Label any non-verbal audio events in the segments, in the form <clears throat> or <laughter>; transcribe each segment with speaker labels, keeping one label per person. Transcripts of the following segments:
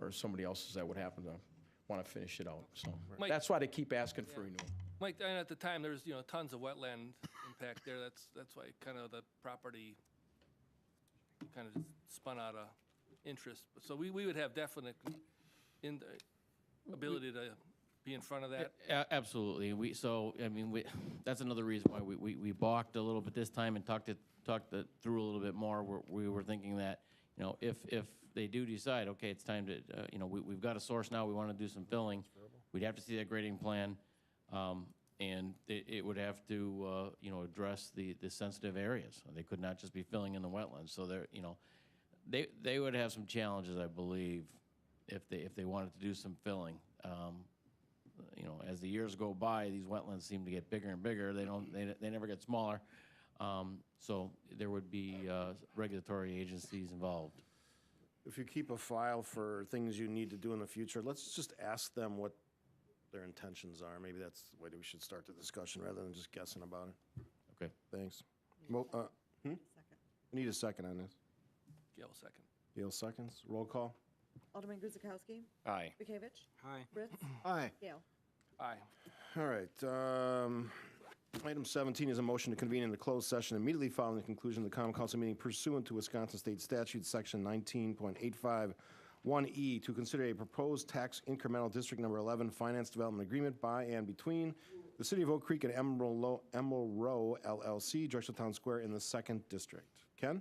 Speaker 1: or somebody else's that would happen to want to finish it out, so.
Speaker 2: Mike-
Speaker 1: That's why they keep asking for renewal.
Speaker 2: Mike, and at the time, there's, you know, tons of wetland impact there. That's, that's why kind of the property kind of spun out of interest. So we, we would have definite in, ability to be in front of that.
Speaker 3: A- Absolutely. We, so, I mean, we, <laughs> that's another reason why we, we, we balked a little bit this time and talked it, talked it through a little bit more. We're, we were thinking that, you know, if, if they do decide, okay, it's time to, uh, you know, we, we've got a source now, we want to do some filling, we'd have to see that grading plan. Um, and it, it would have to, uh, you know, address the, the sensitive areas. They could not just be filling in the wetlands. So they're, you know, they, they would have some challenges, I believe, if they, if they wanted to do some filling. Um, you know, as the years go by, these wetlands seem to get bigger and bigger. They don't, they, they never get smaller. Um, so there would be, uh, regulatory agencies involved.
Speaker 4: If you keep a file for things you need to do in the future, let's just ask them what their intentions are. Maybe that's the way that we should start the discussion rather than just guessing about it.
Speaker 3: Okay.
Speaker 4: Thanks. Mo- uh,
Speaker 5: Second.
Speaker 4: Need a second on this.
Speaker 2: Gail, second.
Speaker 4: Gail seconds. Roll call.
Speaker 5: Alderman Guzekowski.
Speaker 6: Aye.
Speaker 5: Bekavich.
Speaker 6: Aye.
Speaker 5: Ritz.
Speaker 4: <clears throat> Aye.
Speaker 5: Gale.
Speaker 2: Aye.
Speaker 4: All right. um, Item 17 is a motion to convene in a closed session immediately following the conclusion of the common council meeting pursuant to Wisconsin State Statute, Section 19.851E, E to consider a proposed tax incremental District Number 11 Finance Development Agreement by and between the City of Oak Creek and Emerald Lo- Emerald Row LLC, Drexel Town Square in the Second District. Ken?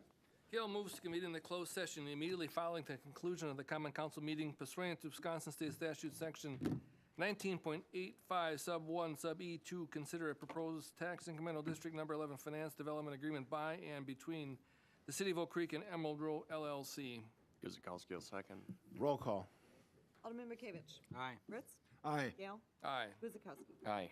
Speaker 2: Gail moves to convene in the closed session immediately following the conclusion of the common council meeting pursuant to Wisconsin State Statute Section 19.85 Sub 1 Sub E 2, consider a proposed tax incremental District Number 11 Finance Development Agreement by and between the City of Oak Creek and Emerald Row LLC.
Speaker 6: Guzekowski will second.
Speaker 4: Roll call.
Speaker 5: Alderman Bekavich.
Speaker 6: Aye.
Speaker 5: Ritz.
Speaker 4: Aye.
Speaker 5: Gale.
Speaker 2: Aye.
Speaker 5: Guzekowski.
Speaker 6: Aye.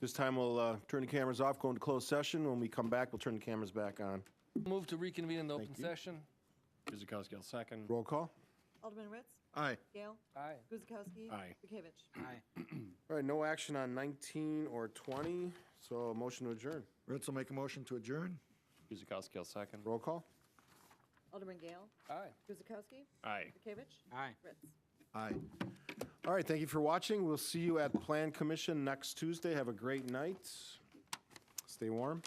Speaker 4: This time, we'll uh, turn the cameras off, go into closed session. When we come back, we'll turn the cameras back on.
Speaker 2: Move to reconvene in the open
Speaker 4: you.
Speaker 2: session.
Speaker 6: Guzekowski will second.
Speaker 4: Roll call.
Speaker 5: Alderman Ritz.
Speaker 4: Aye.
Speaker 5: Gale.
Speaker 2: Aye.
Speaker 5: Guzekowski.
Speaker 6: Aye.
Speaker 5: Bekavich.
Speaker 6: Aye.
Speaker 4: All right, no action on 19 or 20, so a motion to adjourn.
Speaker 7: Ritz will make a motion to adjourn.
Speaker 6: Guzekowski will second.
Speaker 4: Roll call?
Speaker 5: Alderman Gale.
Speaker 2: Aye.
Speaker 5: Guzekowski.
Speaker 6: Aye.
Speaker 5: Bekavich.
Speaker 6: Aye.
Speaker 5: Ritz.
Speaker 7: Aye.
Speaker 4: All right, thank you for watching. We'll see you at Plan Commission next Tuesday. Have a great night. Stay warm.